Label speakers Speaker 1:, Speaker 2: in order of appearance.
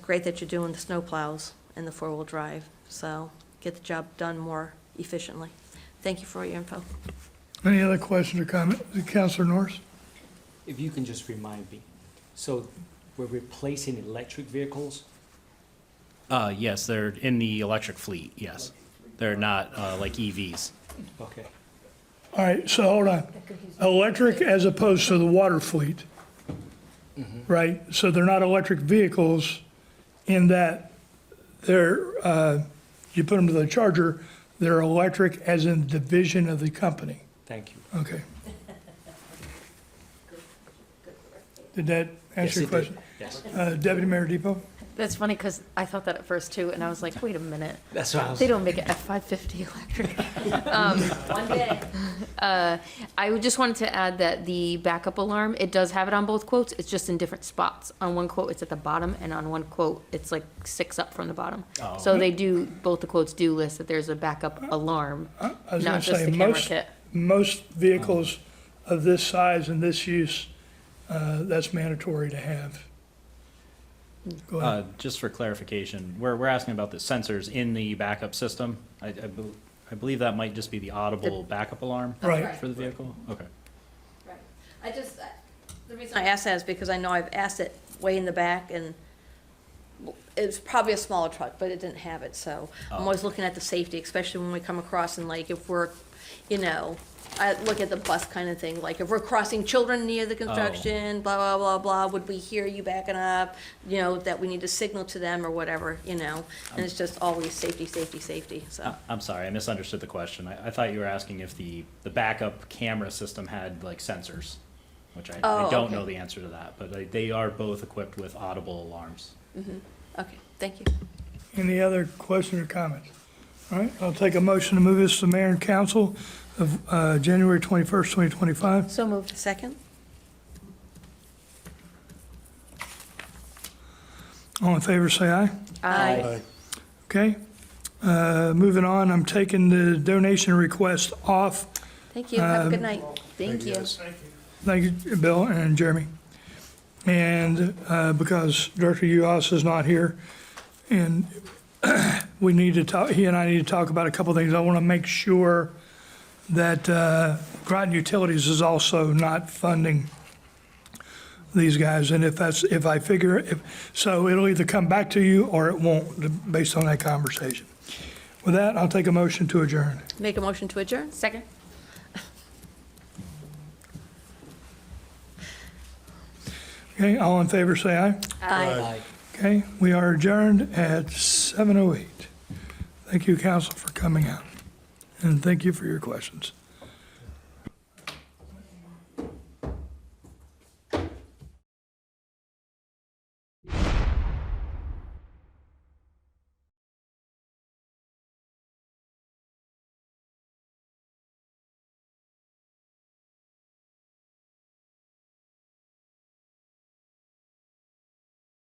Speaker 1: great that you're doing the snow plows and the four-wheel drive, so get the job done more efficiently. Thank you for your info.
Speaker 2: Any other questions or comments? Counselor Norris?
Speaker 3: If you can just remind me, so we're replacing electric vehicles?
Speaker 4: Uh, yes, they're in the electric fleet, yes. They're not, uh, like EVs.
Speaker 3: Okay,
Speaker 2: All right, so hold on. Electric as opposed to the water fleet, right? So they're not electric vehicles in that they're, uh, you put them to the charger, they're electric as in division of the company.
Speaker 3: thank you.
Speaker 2: Okay. Did that
Speaker 3: Yes,
Speaker 2: answer your
Speaker 3: it did.
Speaker 2: question?
Speaker 3: Yes,
Speaker 2: Uh, Deputy Mayor Depot?
Speaker 5: That's funny because I thought that at first too, and I was like, wait a minute,
Speaker 3: that's what I was,
Speaker 5: they don't make an F-550 electric. One day. I would- just wanted to add that the backup alarm, it does have it on both quotes, it's just in different spots. On one quote, it's at the bottom, and on one quote, it's like six up from the bottom. So they do, both the quotes do list that there's a backup alarm,
Speaker 2: I was going
Speaker 5: not
Speaker 2: to
Speaker 5: just
Speaker 2: say,
Speaker 5: the camera
Speaker 2: most,
Speaker 5: kit.
Speaker 2: most vehicles of this size and this use, uh, that's mandatory to have. Go ahead.
Speaker 4: Uh, just for clarification, we're, we're asking about the sensors in the backup system. I, I bel- I believe that might just be the audible backup alarm
Speaker 2: Right.
Speaker 4: for the vehicle? Okay.
Speaker 1: Right. I just, I- the reason I ask that is because I know I've asked it way in the back, and it's probably a smaller truck, but it didn't have it, so
Speaker 5: Oh.
Speaker 1: I'm always looking at the safety, especially when we come across and like, if we're, you know, I look at the bus kind of thing, like, if we're crossing children near the
Speaker 5: Oh.
Speaker 1: construction, blah, blah, blah, blah, would we hear you backing up? You know, that we need to signal to them or whatever, you know, and it's just always safety, safety, safety, so.
Speaker 4: I- I'm sorry, I misunderstood the question. I, I thought you were asking if the, the backup camera system had like sensors, which I, I
Speaker 1: Oh,
Speaker 4: don't
Speaker 1: okay.
Speaker 4: know the answer to that, but they, they are both equipped with audible alarms.
Speaker 5: Oh.
Speaker 1: Okay, thank you.
Speaker 2: Any other questions or comments? All right, I'll take a motion to move this to mayor and council of uh, January 21st, 2025.
Speaker 5: So moved.
Speaker 1: Second?
Speaker 2: All in favor, say aye.
Speaker 5: Aye.
Speaker 2: Okay? Uh, Moving on, I'm taking the donation request off.
Speaker 1: Thank you,
Speaker 5: Um,
Speaker 1: have a good night.
Speaker 5: Thank you.
Speaker 2: Thank you, Bill and Jeremy. And uh, because Director Uhouse is not here, and we need to talk, he and I need to talk about a couple things. I want to make sure that uh, Groton Utilities is also not funding these guys. And if that's, if I figure, if, so it'll either come back to you or it won't, based on that conversation. With that, I'll take a motion to adjourn.
Speaker 1: Make a motion to adjourn?
Speaker 5: Second?
Speaker 2: Okay, all in favor, say aye.
Speaker 3: Aye.
Speaker 2: Okay, we are adjourned at 7:08. Thank you, council, for coming out, and thank you for your questions.